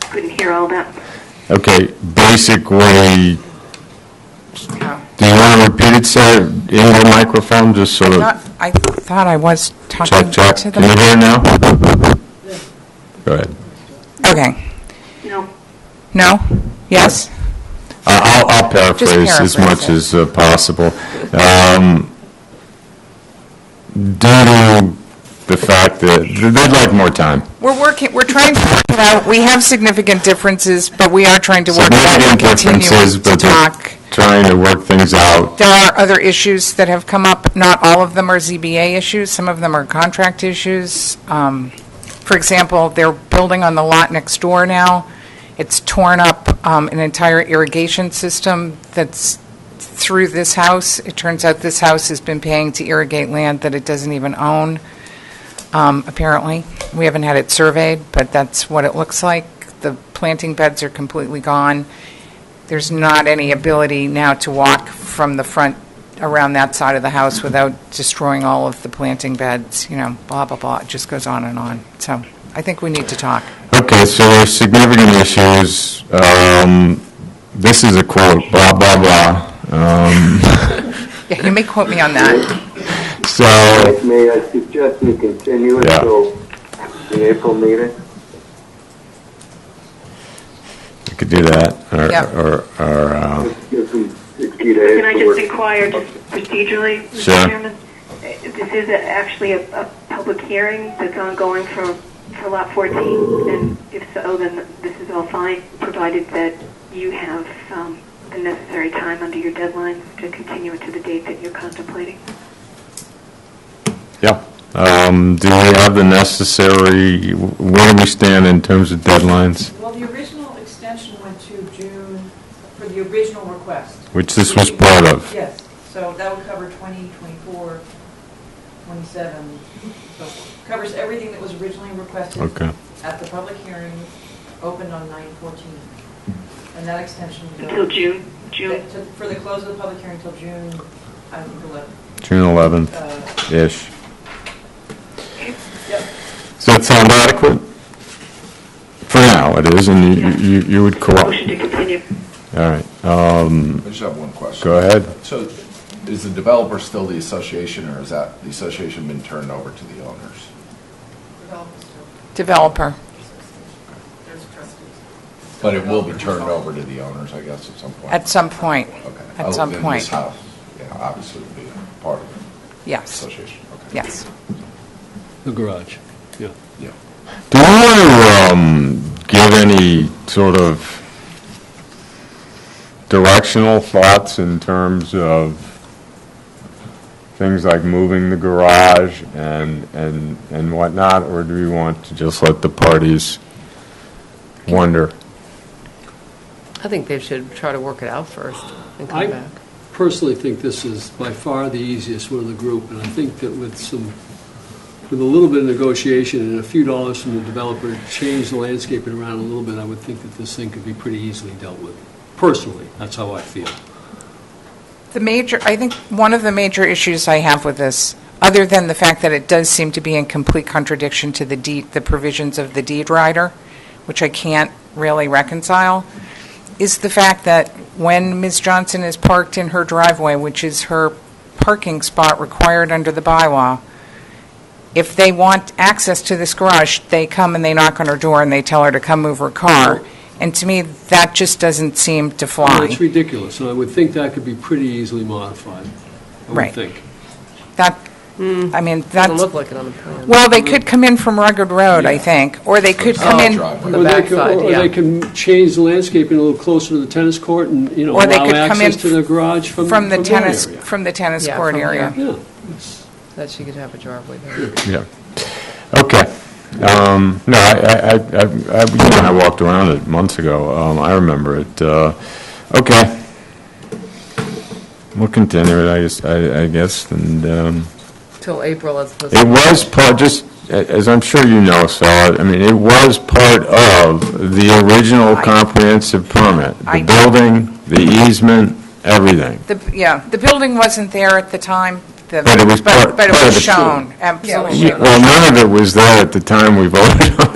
Couldn't hear all that. Okay, basically, do you want to repeat it, Sarah, in the microphone, just so Not- that, I thought I was talking check, to check, can you the... hear now? Go ahead. Okay. No. No? Yes? I- I'll I'll paraphrase as much paraphrase it. as uh, possible. Um, Due to the fact that, they'd like more time. We're working, we're trying to work it out. We have significant differences, but we are trying to work it out. Significant We're continuing differences, to but they're talk. trying to work things out. There are other issues that have come up. Not all of them are ZBA issues. Some of them are contract issues. Um, For example, they're building on the lot next door now. It's torn up um, an entire irrigation system that's through this house. It turns out this house has been paying to irrigate land that it doesn't even own, um, apparently. We haven't had it surveyed, but that's what it looks like. The planting beds are completely gone there's not any ability now to walk from the front around that side of the house without destroying all of the planting beds, you know, blah, blah, blah. It just goes on and on. So I think we need to talk. Okay, so there's significant issues. Um, This is a quote, blah, blah, blah. Um, Yeah, you may quote me on that. So, May I suggest we continue Yeah. until the April meeting? we could do that, or- Yeah. or, or, uh, Let's give them 60 days. Can I to just work. inquire, just procedurally, Sure. Mr. Chairman? Uh, This is a- actually a, a public hearing that's ongoing for, for lot 14, and if so, then this is all fine, provided that you have um, the necessary time under your deadlines to continue it to the date that you're contemplating. yeah. Um, Do we have the necessary, where do we stand in terms of deadlines? Well, the original extension went to June for the original request. Which this was part of. Yes, so that would cover 20, 24, 27, so forth. covers everything that was originally requested. Okay. At the public hearing, opened on 9/14. And that extension. would go- Until June, June, To- For the close of the public hearing until June, I think, 11. June 11th-ish. Uh, Yep. Does that sound adequate? For now, it is, and you- you you would motion to cooperate. continue. All right, I just have one question. go ahead. So is the developer still the association, or is that, the association been turned over to the owners? Developer. But it will be turned over to the owners, I guess, at some point? At some point. Okay. At some Other than this point. house, yeah, obviously would be part of the Yes. association, okay. Yes. The garage, yeah. Yeah. Do you want to um, give any sort of directional thoughts in terms of things like moving the garage and, and, and whatnot, or do you want to just let the parties wonder? I think they should try to work it out first and I- come back. Personally think this is by far the easiest one of the group, and I think that with some, with a little bit of negotiation and a few dollars from the developer, to change the landscaping around a little bit, I would think that this thing could be pretty easily dealt with. Personally, that's how I feel. The major, I think one of the major issues I have with this, other than the fact that it does seem to be in complete contradiction to the deed, the provisions of the deed rider, which I can't really reconcile, is the fact that when Ms. Johnson is parked in her driveway, which is her parking spot required under the bylaw, if they want access to this garage, they come and they knock on her door and they tell her to come move her car. And to me, that just doesn't seem to fly. It's ridiculous, and I would think that could be pretty easily modified, I Right. would think. That, I mean, Doesn't that's, look like it on the plan. well, they could come in from Rugged Road, I think, or they could come Oh, in, driveway. The Or they back could- side, yeah. Or they can change the landscaping a little closer to the tennis court and, you know, Or they allow could come in access to the garage from from the that tennis, area. from the tennis Yeah, court from area. here. Yeah, it's- That she could have a driveway there. Yeah. Okay. Um, No, I, I, I- I, I- you know, I walked around it months ago. Um, I remember it. Uh, Okay. We'll continue it, I guess, I I guess, and um, Till April as opposed it to... was part, just, a- as I'm sure you know, Sal, I mean, it was part of the original I- comprehensive permit. I- The building, the easement, everything. The, yeah, the building wasn't there at the time, the, But it was part- but but it part of was the- shown, Yeah, it was absolutely. shown. Well, none of it was there at the time we voted on